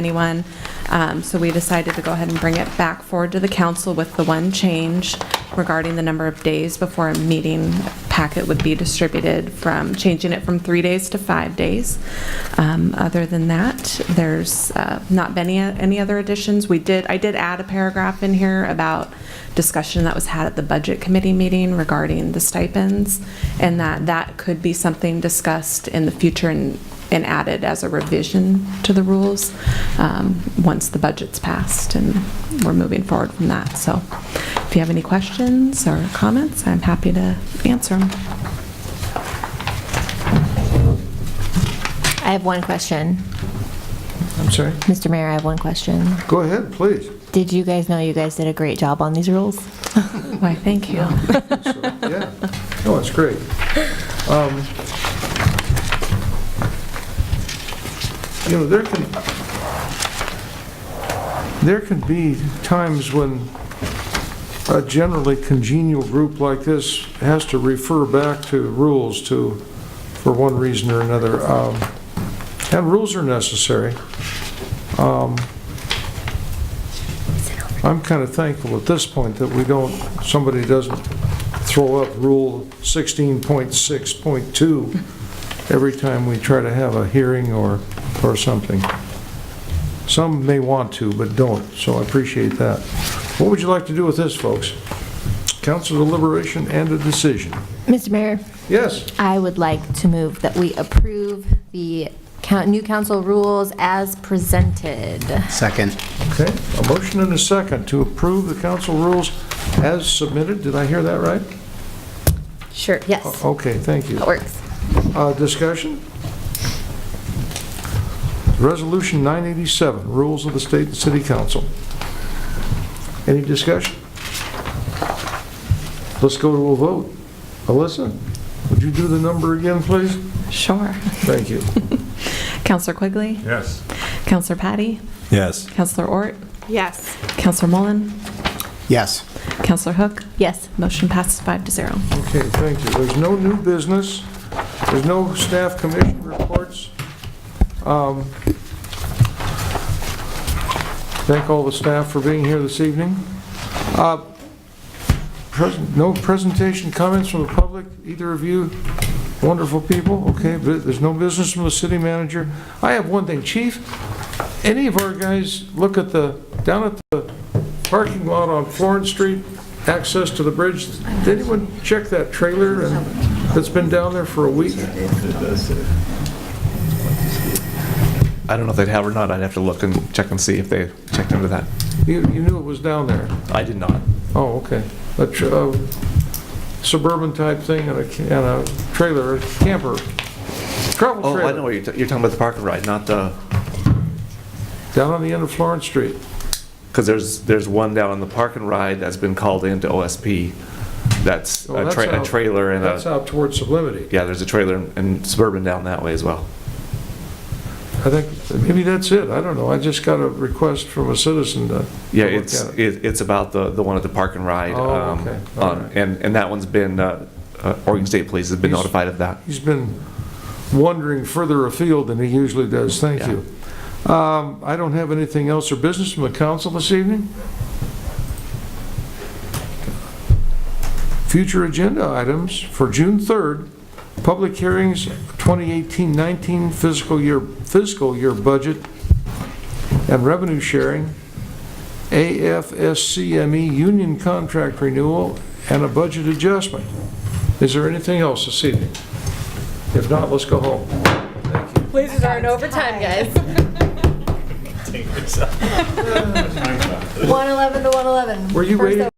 anyone, Um, so we decided to go ahead and bring it back forward to the council with the one change regarding the number of days before a meeting packet would be distributed from, changing it from three days to five days. Um, Other than that, there's uh, not been any any other additions. We did, I did add a paragraph in here about discussion that was had at the Budget Committee meeting regarding the stipends, and that that could be something discussed in the future and and added as a revision to the rules um, once the budget's passed, and we're moving forward from that. So if you have any questions or comments, I'm happy to answer them. I have one question. I'm sorry? Mr. Mayor, I have one question. Go ahead, please. Did you guys know you guys did a great job on these rules? Why, thank you. So, Yeah, no, it's great. Um, You know, there can, there can be times when a generally congenial group like this has to refer back to rules to, for one reason or another. Um, And rules are necessary. Um, I'm kind of thankful at this point that we don't, somebody doesn't throw up Rule 16.6.2 every time we try to have a hearing or, or something. Some may want to, but don't, so I appreciate that. What would you like to do with this, folks? Council deliberation and a decision. Mr. Mayor, Yes, I would like to move that we approve the coun- new council rules as presented. Second. okay, a motion and a second to approve the council rules as submitted. Did I hear that right? Sure. Yes, Okay, thank you. that works. Uh, Discussion? Resolution 987, Rules of the State and City Council. Any discussion? Let's go to a vote. Alyssa, would you do the number again, please? Sure. Thank you. Counselor Quigley? Yes. Counselor Patty? Yes. Counselor Ort? Yes. Counselor Mullen? Yes. Counselor Hook? Yes. Motion passes five to zero. Okay, thank you. There's no new business. There's no staff commission reports. Um, Thank all the staff for being here this evening. Uh, pres- No presentation, comments from the public, either of you wonderful people, okay, but there's no business from the city manager. I have one thing, chief, any of our guys look at the, down at the parking lot on Florence Street, access to the bridge, did anyone check that trailer and- that's been down there for a week? I don't know if they'd have or not. I'd have to look and check and see if they checked into that. You, you knew it was down there? I did not. Oh, okay. A tr- a suburban type thing and a, ca- and a trailer, a camper, travel Oh, trailer. I know what you're, ta- you're talking about the park and ride, not the, Down on the end of Florence Street. because there's, there's one down on the park and ride that's been called into OSP. That's Oh, a that's tra- out- a trailer and That's a, out towards Sublimity. yeah, there's a trailer and suburban down that way as well. I think, maybe that's it, I don't know, I just got a request from a citizen to. Yeah, to look it's, at it. it- it's about the, the one at the park and ride. Oh, um, okay. All on- right. And, and that one's been, uh, uh, Oregon State Police has been He's- notified of that. He's been wandering further afield than he usually does, thank Yeah. you. Um, I don't have anything else or business from the council this evening? Future agenda items for June 3rd, public hearings, 2018-19 fiscal year, fiscal year budget and revenue sharing, AFSCME E union contract renewal, and a budget adjustment. Is there anything else this evening? If not, let's go home. Ladies are in overtime, guys. 111 to 111. Were you First waiting?